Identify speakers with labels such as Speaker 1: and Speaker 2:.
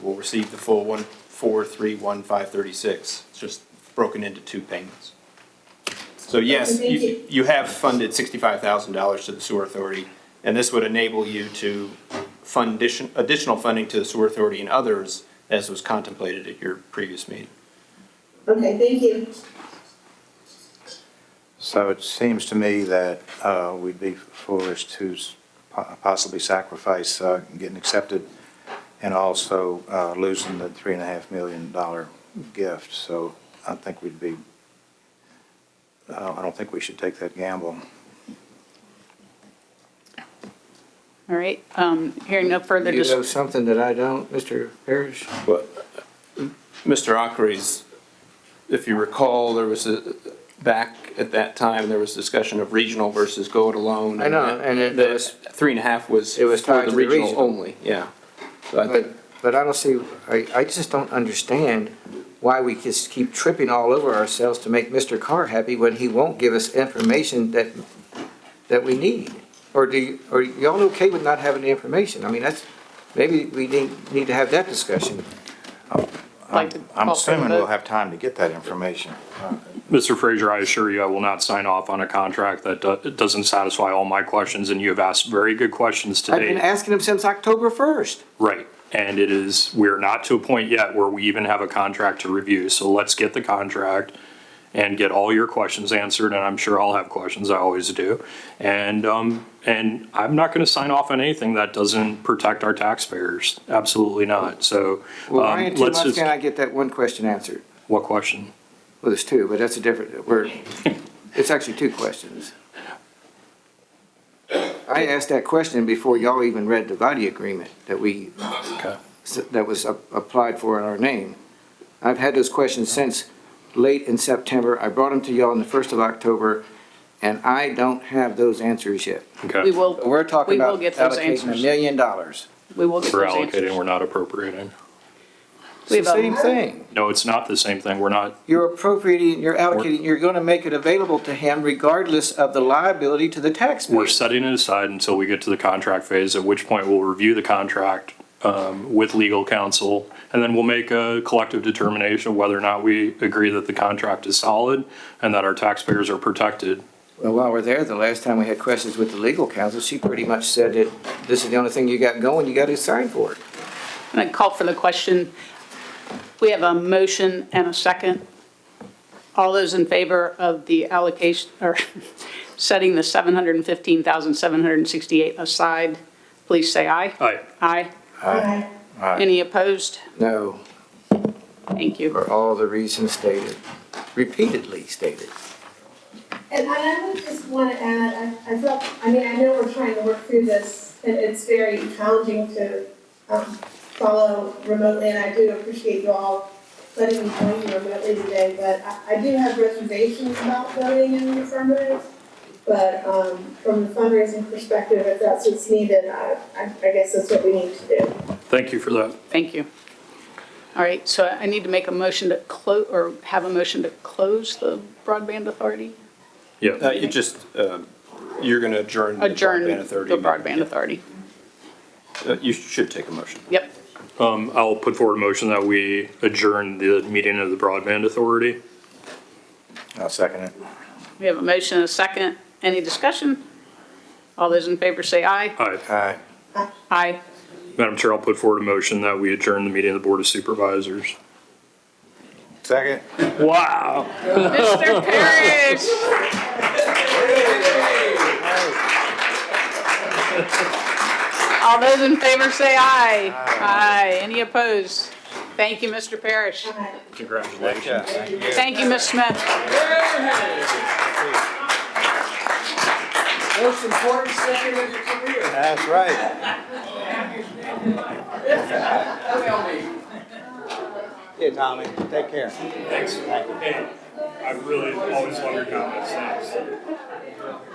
Speaker 1: will receive the full one four three one five thirty-six. It's just broken into two payments. So yes, you, you have funded sixty-five thousand dollars to the sewer authority, and this would enable you to fund addition, additional funding to the sewer authority and others as was contemplated at your previous meeting.
Speaker 2: Okay, thank you.
Speaker 3: So it seems to me that uh, we'd be foolish to s- po- possibly sacrifice uh, getting accepted and also uh, losing the three and a half million dollar gift. So I think we'd be, uh, I don't think we should take that gamble.
Speaker 4: All right, um, hearing no further
Speaker 5: You know
Speaker 4: dis-
Speaker 5: something that I don't, Mr. Parrish?
Speaker 1: Well, Mr. Ockery's, if you recall, there was a, back at that time, there was discussion of regional versus go it alone.
Speaker 5: I know, and it
Speaker 1: The
Speaker 5: was-
Speaker 1: three and a half was.
Speaker 5: It was
Speaker 1: for
Speaker 5: tied to the
Speaker 1: regional
Speaker 5: regional.
Speaker 1: only, yeah. So I
Speaker 5: But
Speaker 1: think,
Speaker 5: but I don't see, I, I just don't understand why we just keep tripping all over ourselves to make Mr. Carr happy when he won't give us information that, that we need. Or do, you- are y'all okay with not having the information? I mean, that's, maybe we need, need to have that discussion.
Speaker 4: like to
Speaker 3: I'm
Speaker 4: call for the
Speaker 3: assuming we'll
Speaker 4: vote.
Speaker 3: have time to get that information.
Speaker 6: Mr. Frazier, I assure you, I will not sign off on a contract that do- doesn't satisfy all my questions, and you have asked very good questions
Speaker 5: I've been
Speaker 6: today.
Speaker 5: asking him since October first.
Speaker 6: Right, and it is, we're not to a point yet where we even have a contract to review, so let's get the contract and get all your questions answered, and I'm sure I'll have questions, I always do. And, um, and I'm not gonna sign off on anything that doesn't protect our taxpayers, absolutely not, so.
Speaker 5: Well,
Speaker 6: um,
Speaker 5: why in two
Speaker 6: let's
Speaker 5: months
Speaker 6: just-
Speaker 5: can I get that one question answered?
Speaker 6: What question?
Speaker 5: Well, there's two, but that's a different, we're, it's actually two questions. I asked that question before y'all even read the body agreement that we,
Speaker 6: Okay.
Speaker 5: that was a- applied for in our name. I've had those questions since late in September. I brought them to y'all on the first of October, and I don't have those answers yet.
Speaker 6: Okay.
Speaker 4: We will,
Speaker 5: We're talking
Speaker 4: We will
Speaker 5: about
Speaker 4: get those
Speaker 5: allocating a
Speaker 4: answers.
Speaker 5: million dollars.
Speaker 4: we will get
Speaker 6: We're
Speaker 4: those
Speaker 6: allocating,
Speaker 4: answers.
Speaker 6: we're not appropriating.
Speaker 5: It's
Speaker 4: We
Speaker 5: the
Speaker 4: have a-
Speaker 5: same thing.
Speaker 6: No, it's not the same thing, we're not,
Speaker 5: You're appropriating, you're allocating, you're gonna make it available to him regardless of the liability to the taxpayer.
Speaker 6: We're setting it aside until we get to the contract phase, at which point we'll review the contract um, with legal counsel, and then we'll make a collective determination whether or not we agree that the contract is solid and that our taxpayers are protected.
Speaker 5: Well, while we're there, the last time we had questions with the legal counsel, she pretty much said that this is the only thing you got going, you gotta sign for it.
Speaker 4: I'm going to call for the question. We have a motion and a second. All those in favor of the allocation, or setting the 715,768 aside, please say aye.
Speaker 6: Aye.
Speaker 4: Aye.
Speaker 2: Aye.
Speaker 4: Any opposed?
Speaker 5: No,
Speaker 4: Thank you.
Speaker 5: for all the reasons stated, repeatedly stated.
Speaker 2: And I would just want to add, I, I felt, I mean, I know we're trying to work through this, and it's very challenging to, um, follow remotely, and I do appreciate you all letting me join you remotely today, but I, I do have reservations about voting in the affirmative. But, um, from the fundraising perspective, if that's what's needed, I, I, I guess that's what we need to do.
Speaker 6: Thank you for that.
Speaker 4: Thank you. All right, so I need to make a motion to close, or have a motion to close the broadband authority?
Speaker 1: uh,
Speaker 6: Yeah.
Speaker 1: you just, uh, you're gonna adjourn the
Speaker 4: Adjourn
Speaker 1: broadband authority.
Speaker 4: the broadband authority.
Speaker 1: Uh, You should take a motion.
Speaker 4: Yep.
Speaker 6: Um, I'll put forward a motion that we adjourn the meeting of the Broadband Authority.
Speaker 3: I'll second it.
Speaker 4: We have a motion and a second. Any discussion? All those in favor say aye.
Speaker 6: Aye.
Speaker 3: Aye.
Speaker 4: Aye.
Speaker 6: Madam Chair, I'll put forward a motion that we adjourn the meeting of the Board of Supervisors.
Speaker 3: Second?
Speaker 6: Wow.
Speaker 4: Mr. Parrish! All those in favor say aye. Aye. Any opposed? Thank you, Mr. Parrish.
Speaker 2: Aye.
Speaker 6: Congratulations.
Speaker 4: Thank you, Ms. Smith.
Speaker 5: Most important second of your career.
Speaker 3: That's right.
Speaker 7: Yeah, Tommy, take care.
Speaker 6: Thanks. Hey, I really always love your comments. Thanks.